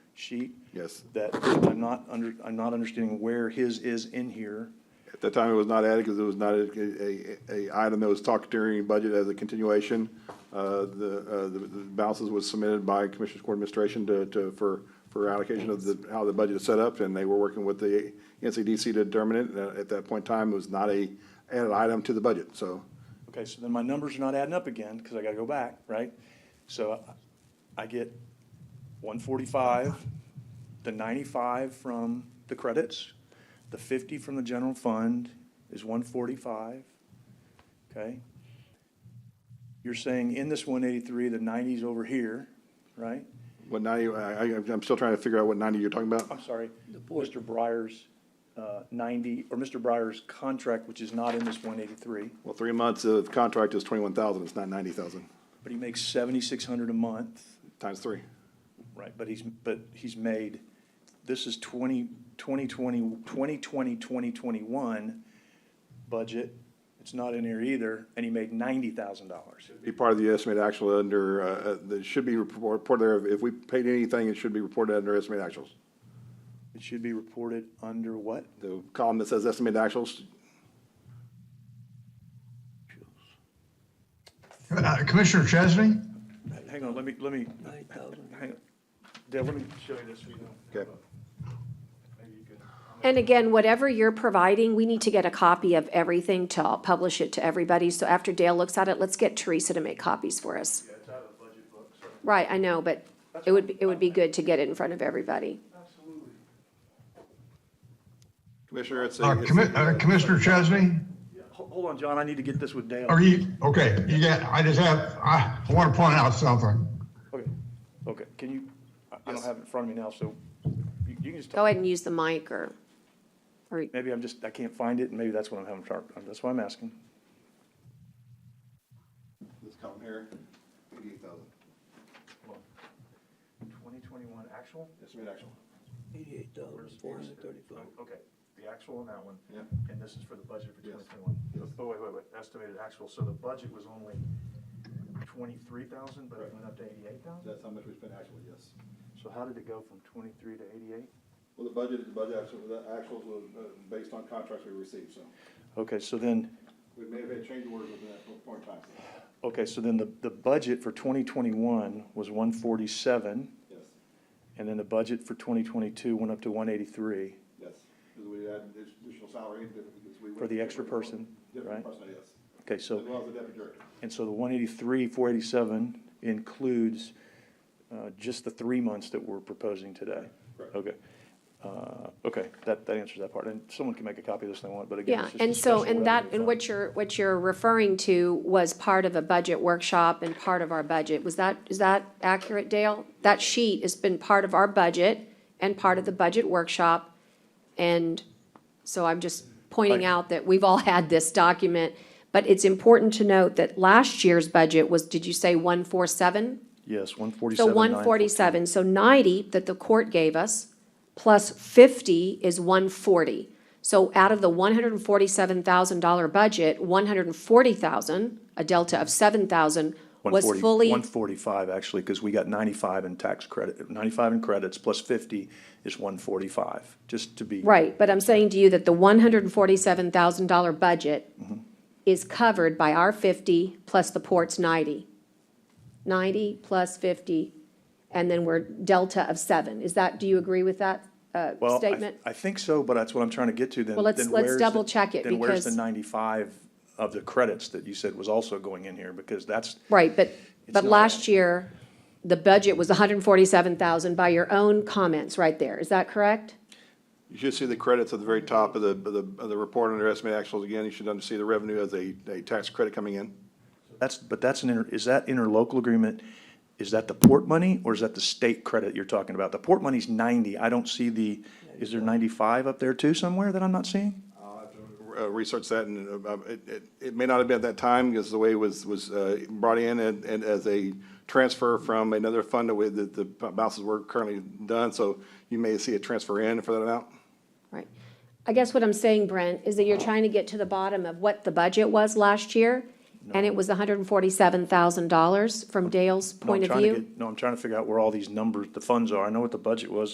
sheet. Yes. That I'm not under, I'm not understanding where his is in here. At that time, it was not added because it was not a, a, a item that was talked during budget as a continuation. Uh, the, uh, the the balances was submitted by Commissioners Court Administration to, to, for, for allocation of the, how the budget is set up, and they were working with the NCDC to determine it. And At that point in time, it was not a added item to the budget, so. Okay, so then my numbers are not adding up again, because I gotta go back, right? So I I get one forty-five, the ninety-five from the credits, the fifty from the general fund is one forty-five, okay? You're saying in this one eighty-three, the ninety's over here, right? What ninety, I, I, I'm still trying to figure out what ninety you're talking about. I'm sorry, Mr. Breyer's uh, ninety, or Mr. Breyer's contract, which is not in this one eighty-three, Well, three months of contract is twenty-one thousand, it's not ninety thousand, but he makes seventy-six hundred a month. times three. Right, but he's, but he's made, this is 20, 2020, 2020, 2021 budget. It's not in here either, and he made $90,000. Be part of the estimated actual under, uh, uh, that should be report- reported there, if we paid anything, it should be reported under estimated actuals. It should be reported under what? The column that says estimated actuals, Uh, Commissioner Chesney? Hang on, let me, let me, hang on. Deb, let me show you this. so you know. okay, Maybe you could- And again, whatever you're providing, we need to get a copy of everything to all- publish it to everybody. So after Dale looks at it, let's get Teresa to make copies for us. Yeah, it's out of the budget book, so. Right, I know, but it would, be- it would be good to get it in front of everybody. Absolutely. Commissioner, it's. a- Uh, it's a- Commi- uh, Commissioner Chesney? Yeah, ho- Hold on, John, I need to get this with Dale. Are you, okay, you got, I just have, I want to point out something. Okay, okay, can you, I- I don't have it in front of me now, so you you can just. Go ahead and use the mic or, or, Maybe I'm just, I can't find it, and maybe that's what I'm having trouble, that's why I'm asking. This column here, eighty-eight thousand, Twenty twenty-one actual? estimated actual. Eighty-eight thousand, four hundred and thirty-five. Oh, Okay, the actual on that one. Yeah. And this is for the budget for Yes. twenty twenty-one. Yes. Oh, wait, wait, wait, estimated actual, so the budget was only twenty-three thousand, but it went up to eighty-eight thousand? That's how much we spent actually, yes. So how did it go from twenty-three to eighty-eight? Well, the budget, the budget actual, the actuals was uh, based on contracts we received, so Okay, so then, we may have had change orders within that point in time. so, okay, so then the, the budget for twenty twenty-one was one forty-seven, Yes, and then the budget for twenty twenty-two went up to one eighty-three yes, because we had additional salary. because we went- for the extra person, right? Different person, yes. Okay, so. As well as the deputy director. And so the one eighty-three, four eighty-seven includes, uh, just the three months that we're proposing today? Correct. Okay, uh, okay, that, that answers that part, and someone can make a copy of this if they want, but again, yeah. it's just And so, discussion and without that, any and what you're, what you're referring to was part of a budget workshop and part of our budget. Was that, is that accurate, Dale? That sheet has been part of our budget and part of the budget workshop. And so I'm just pointing Right. out that we've all had this document. But it's important to note that last year's budget was, did you say one four seven? time. Yes, one forty-seven. So one forty-seven, so ninety that the court gave us, plus fifty is one forty. So out of the one hundred and forty-seven thousand dollar budget, one hundred and forty thousand, a delta of seven thousand, was fully, One forty-five, actually, because we got ninety-five in tax credit, ninety-five in credits plus fifty is one forty-five, just to be. right, but I'm saying to you that the one hundred and forty-seven thousand dollar budget Mm-hmm. is covered by our fifty plus the port's ninety. Ninety plus fifty, and then we're delta of seven. Is that, do you agree with that, uh, Well, I- statement? I think so, but that's what I'm trying to get to then. Well, let's- then let's where's the- double check it Then where's the because- ninety-five of the credits that you said was also going in here? Because that's, Right, but, but not last year, the budget was hundred and forty-seven thousand by your own comments right there, is that correct? You should see the credits at the very top of the, of the, of the report under estimated actuals again. You should under- see the revenue as a, a tax credit coming in. that's, but that's an, inter- is that interlocal agreement? Is that the port money or is that the state credit you're talking about? The port money's ninety. I don't see the, is there ninety-five up there too somewhere that I'm not seeing? I'll have to, uh, Research that and, uh, it, it, it may not have been at that time because the way it was, was, uh, brought in and, and as a transfer from another fund that we- that the balances were currently done. So you may see a transfer in for that amount. Right. I guess what I'm saying, Brent, is that you're trying to get to the bottom of what the budget was last year, and it was hundred and forty-seven thousand dollars from Dale's No, I'm point of trying to view? get- No, I'm trying to figure out where all these numbers, the funds are. I know what the budget was